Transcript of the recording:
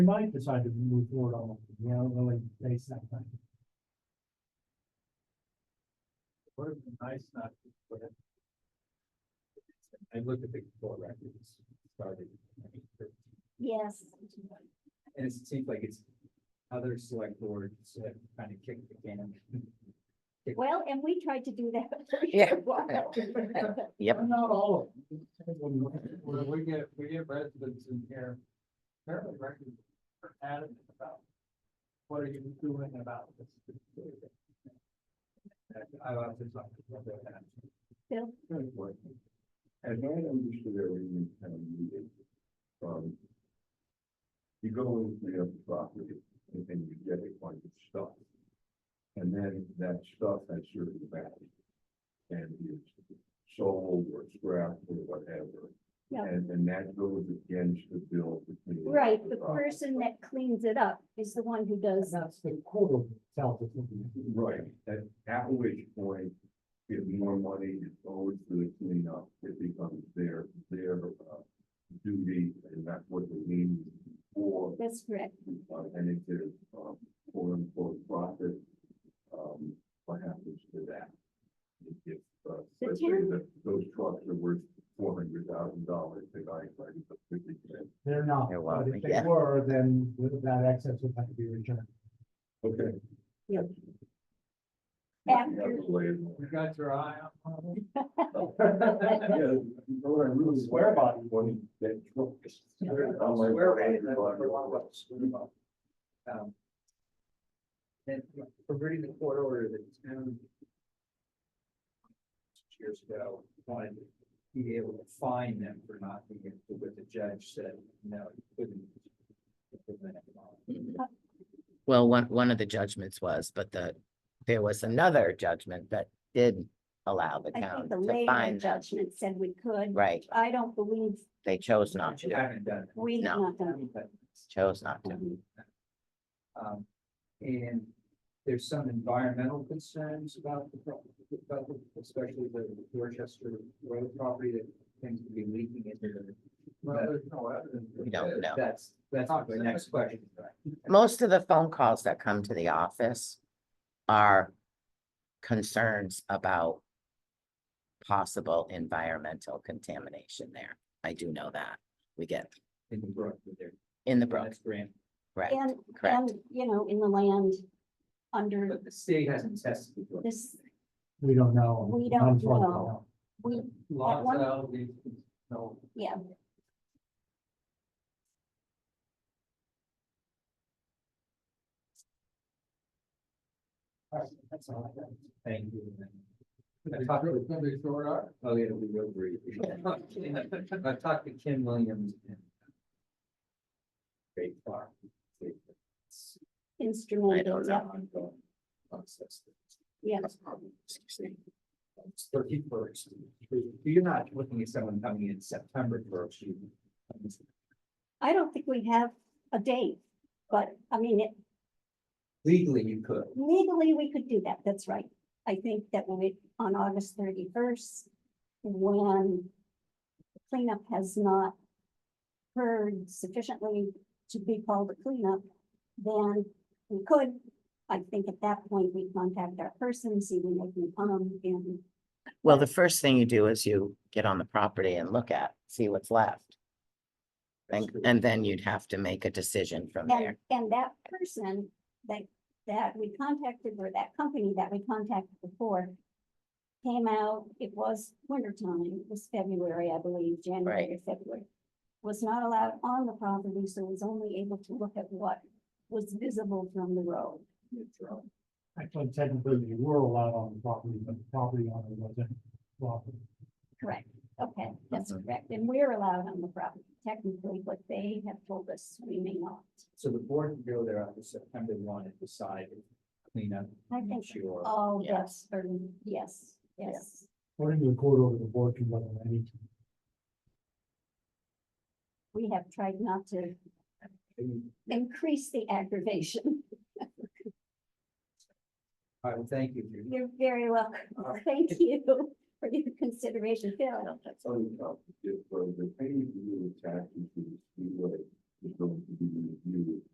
We might decide to move forward on, it, you know, really face that thing. Would have been nice not to put it. I looked at the court records, started. in 2013, Yes. And it seems like it's other select boards that kind of kicked the can. Well, and we tried to do that. for a Yeah. while. Yep. Not all of them. When we get, we get residents in here, their records are adamant about what are you doing about this? And I love this. Yeah. And I understood everything kind of needed. Um. You go into your property and then you get a bunch of stuff. And then that stuff has certain value. And it's sold or scrapped or whatever. Yeah. And and that goes against the bill between. Right, the person that cleans it up is the one who does, That's the quote itself. Right, at at which point, if more money is owed to the cleanup, it becomes their, their uh, duty, and that's what the lien is for, that's correct. uh, and if there's, um, quote unquote, profit, um, what happens to that? If, uh, The let's say town- that those trucks are worth four hundred thousand dollars, they buy it for fifty cents. They're not, They're wild, but if they yeah. were, then that excess would have to be returned. Okay. Yep. You have After- to lay it on. You got your eye on Yeah, you know what I really swear by is when he- that truck is- I'm like, Um, And for reading the court order that the town. six Years ago, wanted to be able to fine them for not being able to, but the judge said, no, you couldn't. implement it all." Well, one, one of the judgments was, but the, there was another judgment that did allow the I town think the to later find them. judgment said we could. Right, I don't believe they chose not You to, haven't done. it. we've No. not done. But chose not to. Um, and there's some environmental concerns about the pro- about the- especially the Dorchester Road property that tends to be leaking into the. Well, there's no evidence. We don't know. That's, that's my next question. Most of the phone calls that come to the office are concerns about possible environmental contamination there. I do know that. We get In the brook with their. in the brook, That's grand. right, And, correct. and, you know, in the land under But the state hasn't tested the brook. this, We don't know. We don't Unfortunately. know. we, At one- Lots of these, no. yeah, That's all I got. Thank you. I talked to somebody short art. Oh, yeah, it'll be real brief. I talked to Ken Williams. and uh, Great car. I don't instrumental, yeah, know. yeah. Thirty first. You're not looking at someone coming in September first. you- I don't think we have a date, but I mean, it, Legally, you could. Legally, we could do that, that's right. I think that when it, on August thirty-first, when the cleanup has not occurred sufficiently to be called a cleanup, then we could, I think at that point, we contact our person, see when they can come and, Well, the first thing you do is you get on the property and look at, see what's left. And, and then you'd have to make a decision from and, there. and that person that, that we contacted or that company that we contacted before came out, it was wintertime, it was February, I believe, January, or February. was not allowed on the property, so was only able to look at what was visible from the road. Actually, technically, you were allowed on the property, but the property owner wasn't. Correct. Okay, that's Uh-huh. Mhm. correct. And we're allowed on the property technically, but they have told us we may not. So the board can go there after September one and decide clean up. I think Sure. all Yeah. that's, for- yes, yes. According to the court order, the board can go at any time. We have tried not to increase the aggravation. All right, well, thank you. You're very welcome. Thank you for your consideration, Phil. So, uh, if, uh, the paying of the taxes to the speedway is going to be reviewed